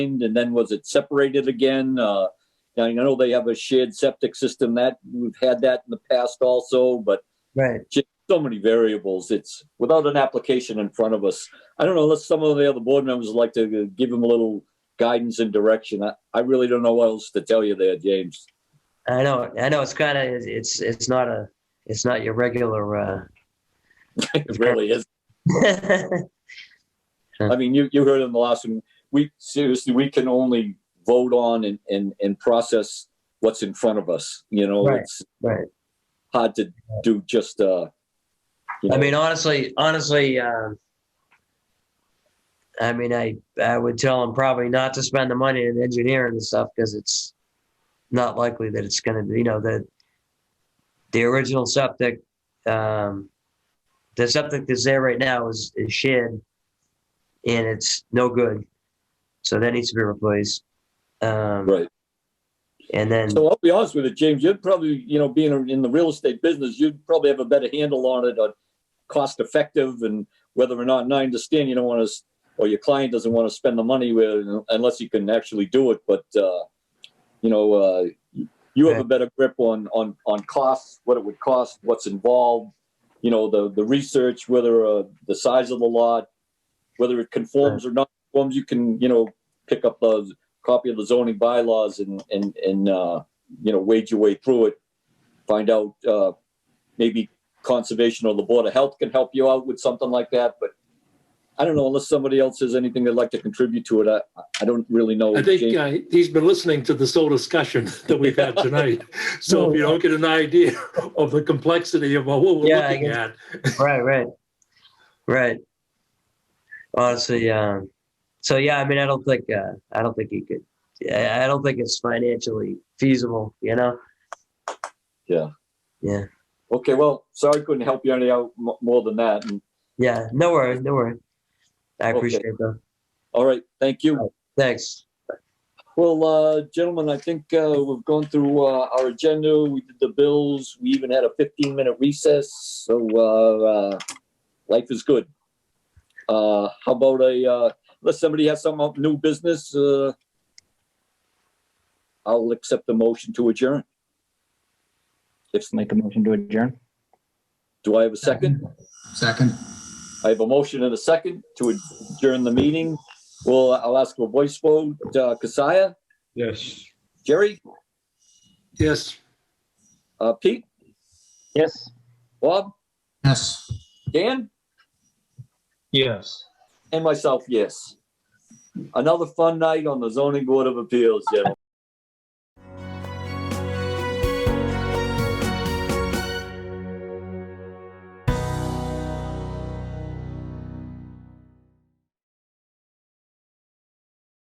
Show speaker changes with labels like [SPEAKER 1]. [SPEAKER 1] and then was it separated again? Uh, I know they have a shared septic system that we've had that in the past also, but
[SPEAKER 2] Right.
[SPEAKER 1] so many variables. It's without an application in front of us. I don't know unless some of the other board members would like to give them a little guidance and direction. I, I really don't know what else to tell you there, James.
[SPEAKER 2] I know. I know. It's kind of. It's. It's not a. It's not your regular. uh
[SPEAKER 1] It really is. I mean, you, you heard in the last one, we seriously, we can only vote on and, and, and process what's in front of us. You know,
[SPEAKER 2] Right.
[SPEAKER 1] it's
[SPEAKER 2] Right.
[SPEAKER 1] hard to do just, uh, you
[SPEAKER 2] I
[SPEAKER 1] know,
[SPEAKER 2] mean, honestly, honestly. um I mean, I I would tell them probably not to spend the money in engineering and stuff because it's not likely that it's going to be. You know that the original septic, um, the septic that's there right now is is shed, and it's no good, so that needs to be replaced. Um,
[SPEAKER 1] right.
[SPEAKER 2] And then
[SPEAKER 1] So I'll be honest with you, James, you'd probably, you know, being in the real estate business, you'd probably have a better handle on it on cost effective and whether or not, and I understand you don't want to, or your client doesn't want to spend the money with, unless you can actually do it, but, uh, you know, uh, you have a better grip on, on, on costs, what it would cost, what's involved, you know, the, the research, whether, uh, the size of the lot, whether it conforms or not conforms, you can, you know, pick up those, copy of the zoning bylaws and, and, and, uh, you know, wade your way through it. Find out, uh, maybe conservation or the Board of Health can help you out with something like that, but I don't know, unless somebody else has anything they'd like to contribute to it, I, I don't really know.
[SPEAKER 3] I think
[SPEAKER 1] James.
[SPEAKER 3] uh, he's been listening to this whole discussion that we've had tonight. So if you don't get an idea of the complexity of what we're
[SPEAKER 2] Yeah, I
[SPEAKER 3] looking
[SPEAKER 2] guess.
[SPEAKER 3] at,
[SPEAKER 2] right, right, right. Honestly, um, so yeah, I mean, I don't think, uh, I don't think he could. I I don't think it's financially feasible, you know.
[SPEAKER 1] Yeah.
[SPEAKER 2] Yeah,
[SPEAKER 1] Okay, well, sorry I couldn't help you any out mo- more than that. And,
[SPEAKER 2] yeah. No worries, no worries. I
[SPEAKER 1] Okay.
[SPEAKER 2] appreciate it, though.
[SPEAKER 1] all right, thank you.
[SPEAKER 2] Thanks.
[SPEAKER 1] Well, uh, gentlemen, I think uh, we've gone through uh, our agenda. We did the bills. We even had a 15 minute recess. So uh, uh, life is good. Uh, how about a, uh, unless somebody has some up- new business, uh, I'll accept the motion to adjourn. If,
[SPEAKER 4] Make a motion to adjourn?
[SPEAKER 1] do I have a second?
[SPEAKER 5] Second.
[SPEAKER 1] I have a motion and a second to adjourn the meeting. Well, I'll ask for a voice vote. Uh, Kasaya,
[SPEAKER 6] Yes.
[SPEAKER 1] Jerry,
[SPEAKER 3] yes,
[SPEAKER 1] uh, Pete,
[SPEAKER 4] Yes.
[SPEAKER 1] Bob,
[SPEAKER 5] Yes.
[SPEAKER 1] Dan?
[SPEAKER 6] Yes.
[SPEAKER 1] And myself, yes. Another fun night on the zoning board of appeals, gentlemen.